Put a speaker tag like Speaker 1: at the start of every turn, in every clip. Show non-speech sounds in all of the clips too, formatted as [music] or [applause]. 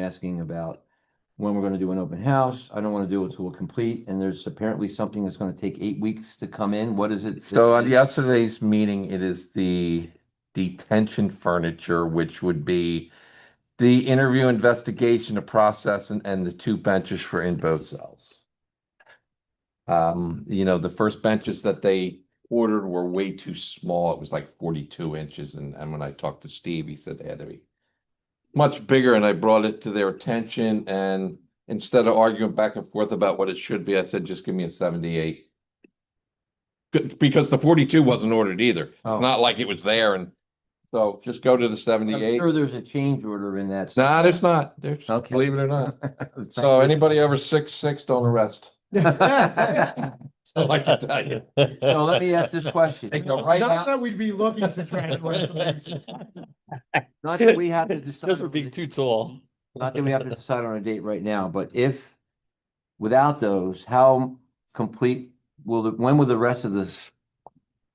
Speaker 1: asking about when we're gonna do an open house. I don't wanna do it till we're complete, and there's apparently something that's gonna take eight weeks to come in. What is it?
Speaker 2: So uh, on yesterday's meeting, it is the detention furniture, which would be the interview investigation, the process and, and the two benches for in both cells. Um, you know, the first benches that they ordered were way too small. It was like forty-two inches and, and when I talked to Steve, he said they had to be much bigger and I brought it to their attention and instead of arguing back and forth about what it should be, I said, just give me a seventy-eight. Good, because the forty-two wasn't ordered either. It's
Speaker 1: Oh.
Speaker 2: not like it was there and so just go to the
Speaker 1: I'm
Speaker 2: seventy-eight.
Speaker 1: sure there's a change order in
Speaker 2: [laughs]
Speaker 1: that.
Speaker 2: No, there's not. There's,
Speaker 1: Okay.
Speaker 2: believe it or
Speaker 1: [laughs]
Speaker 2: not. So anybody over six, six, don't arrest.
Speaker 1: So
Speaker 2: I like to tell
Speaker 1: [laughs]
Speaker 2: you.
Speaker 1: let me ask this question.
Speaker 2: They go right
Speaker 3: Not
Speaker 2: out.
Speaker 3: that we'd be looking to try and arrest them. [laughs]
Speaker 1: Not that we have to decide.
Speaker 3: Those
Speaker 1: on
Speaker 3: would be
Speaker 1: the-
Speaker 3: too tall.
Speaker 1: Not that we have to decide on a date right now, but if without those, how complete will the, when will the rest of this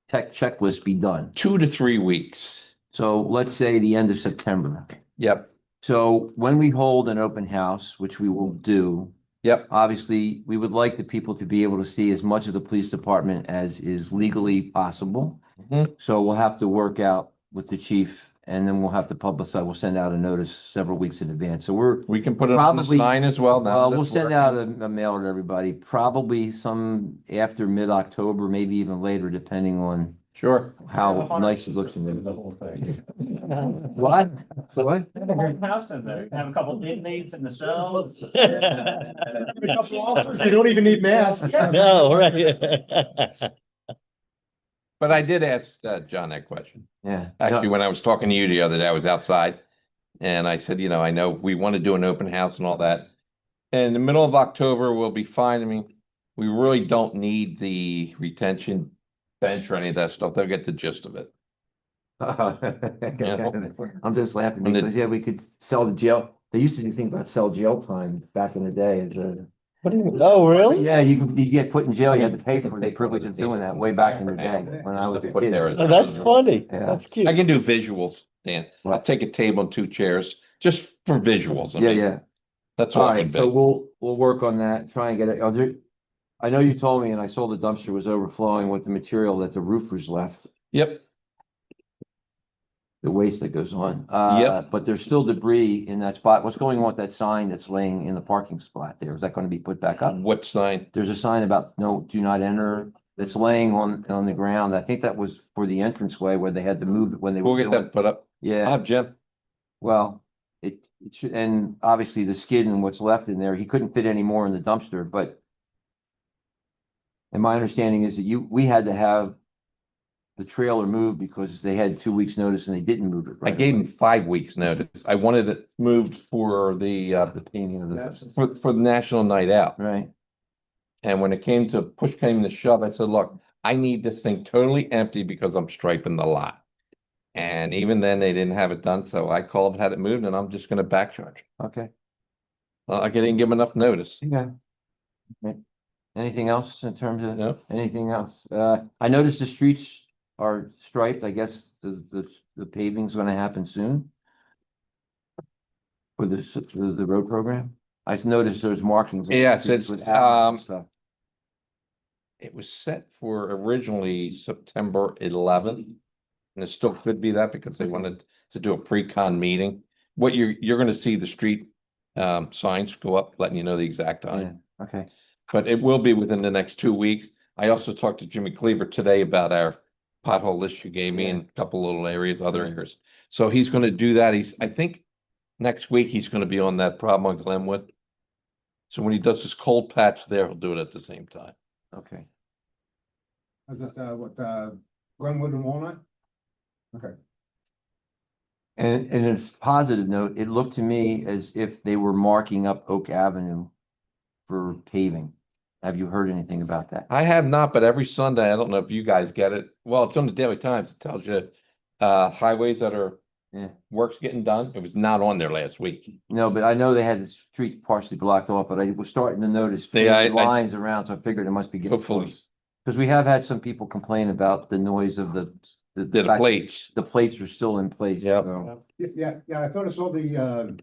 Speaker 1: tech checklist be done?
Speaker 2: Two to three weeks.
Speaker 1: So let's say the end of September.
Speaker 2: Yep,
Speaker 1: So when we hold an open house, which we will do,
Speaker 2: yep.
Speaker 1: obviously, we would like the people to be able to see as much of the police department as is legally possible.
Speaker 2: Mhm.
Speaker 1: So we'll have to work out with the chief and then we'll have to publicize, we'll send out a notice several weeks in advance. So we're,
Speaker 2: We can put it on the
Speaker 1: Probably-
Speaker 2: sign as well. now
Speaker 1: well,
Speaker 2: that
Speaker 1: we'll
Speaker 2: it's
Speaker 1: send
Speaker 2: working.
Speaker 1: out a a mail to everybody, probably some after mid-October, maybe even later, depending on
Speaker 2: Sure.
Speaker 1: how nice it looks in
Speaker 4: The
Speaker 1: there.
Speaker 4: whole thing.
Speaker 1: [laughs] What? What?
Speaker 4: They have a whole house in there. They Have a couple inmates in the cells. [laughs]
Speaker 3: They
Speaker 4: They
Speaker 3: don't even need masks.
Speaker 4: No,
Speaker 3: right. [laughs]
Speaker 2: But I did ask uh, John that question.
Speaker 1: Yeah. [laughs]
Speaker 2: Actually, when I was talking to you the other day, I was outside. And I said, you know, I know we want to do an open house and all that. And the middle of October will be fine. I mean, we really don't need the retention bench or any of that stuff. They'll get the gist of it.
Speaker 1: I'm just laughing
Speaker 2: And it-
Speaker 1: because, yeah, we could sell the jail. They used to do things about sell jail time back in the day. It's, uh,
Speaker 3: Oh, really?
Speaker 1: Yeah, you, could- you get put in jail, you had to pay for the privilege of doing that way back in the day when I was a
Speaker 2: Put there
Speaker 1: kid.
Speaker 2: as-
Speaker 3: Oh, That's funny.
Speaker 1: Yeah.
Speaker 3: That's
Speaker 2: I
Speaker 3: cute.
Speaker 2: can do visuals, Dan. I'll
Speaker 1: Right.
Speaker 2: take a table and two chairs just for visuals. I
Speaker 1: Yeah,
Speaker 2: mean,
Speaker 1: yeah.
Speaker 2: That's
Speaker 1: All
Speaker 2: all it
Speaker 1: right, so
Speaker 2: would be.
Speaker 1: we'll, we'll work on that, try and get it. Are there- I know you told me and I saw the dumpster was overflowing with the material that the roofers left,
Speaker 2: Yep,
Speaker 1: the waste that goes on. Uh, but there's still debris in that spot. What's going on with that sign that's laying in the parking spot there? Is that going to be put back up?
Speaker 2: what sign?
Speaker 1: there's a sign about no, do not enter that's laying on, on the ground. I think that was for the entranceway where they had to move it when they.
Speaker 2: We'll
Speaker 1: were
Speaker 2: get
Speaker 1: doing-
Speaker 2: that put up. I'll
Speaker 1: Yeah,
Speaker 2: have Jim.
Speaker 1: well, it, it should, and obviously the skid and what's left in there, he couldn't fit any more in the dumpster, but. And my understanding is that you, we had to have the trailer moved because they had two weeks' notice and they didn't move it.
Speaker 2: I
Speaker 1: right
Speaker 2: gave
Speaker 1: away.
Speaker 2: him five weeks notice. I wanted it moved for the, uh, the painting of this, for, for the National Night Out.
Speaker 1: Right,
Speaker 2: And when it came to push came to shove, I said, look, I need this thing totally empty because I'm striping the lot. And even then, they didn't have it done, so I called, had it moved, and I'm just gonna back charge.
Speaker 1: okay,
Speaker 2: Uh, I didn't give him enough notice.
Speaker 1: yeah. Okay. Anything else in terms of?
Speaker 2: No,
Speaker 1: Anything else? Uh, I noticed the streets are striped. I guess the, the, the paving's gonna happen soon. For the, s- the, the road program. I s- noticed there's markings. on the
Speaker 2: Yes,
Speaker 1: streets
Speaker 2: it's,
Speaker 1: with arrows and
Speaker 2: um,
Speaker 1: stuff.
Speaker 2: it was set for originally September eleventh. And it still could be that because they wanted to do a pre-con meeting. What you're, you're gonna see the street um, signs go up, letting you know the exact time.
Speaker 1: Yeah, Okay,
Speaker 2: But it will be within the next two weeks. I also talked to Jimmy Cleaver today about our pothole list you gave me
Speaker 1: Yeah.
Speaker 2: and a couple little areas, other areas. So he's gonna do that. He's, I think, next week he's gonna be on that problem on Glenwood. So when he does his cold patch there, he'll do it at the same time.
Speaker 1: okay.
Speaker 5: Is it, uh, what, uh, Glenwood and Walnut?
Speaker 1: And, and it's positive note, it looked to me as if they were marking up Oak Avenue for paving. Have you heard anything about that?
Speaker 2: I have not, but every Sunday, I don't know if you guys get it. Well, it's on the Daily Times. It tells you uh highways that are eh,
Speaker 1: Yeah.
Speaker 2: works getting done. It was not on there last week.
Speaker 1: No, but I know they had the street partially blocked off, but I was starting to notice
Speaker 2: They- I-
Speaker 1: faded
Speaker 2: I-
Speaker 1: lines around, so I figured it must be getting
Speaker 2: Hopefully,
Speaker 1: close. Because we have had some people complain about the noise of the.
Speaker 2: did
Speaker 1: fact
Speaker 2: a plates.
Speaker 1: The plates are still in place.
Speaker 2: Yep.
Speaker 1: so-
Speaker 5: Yeah, yeah, yeah, I thought I saw the, uh,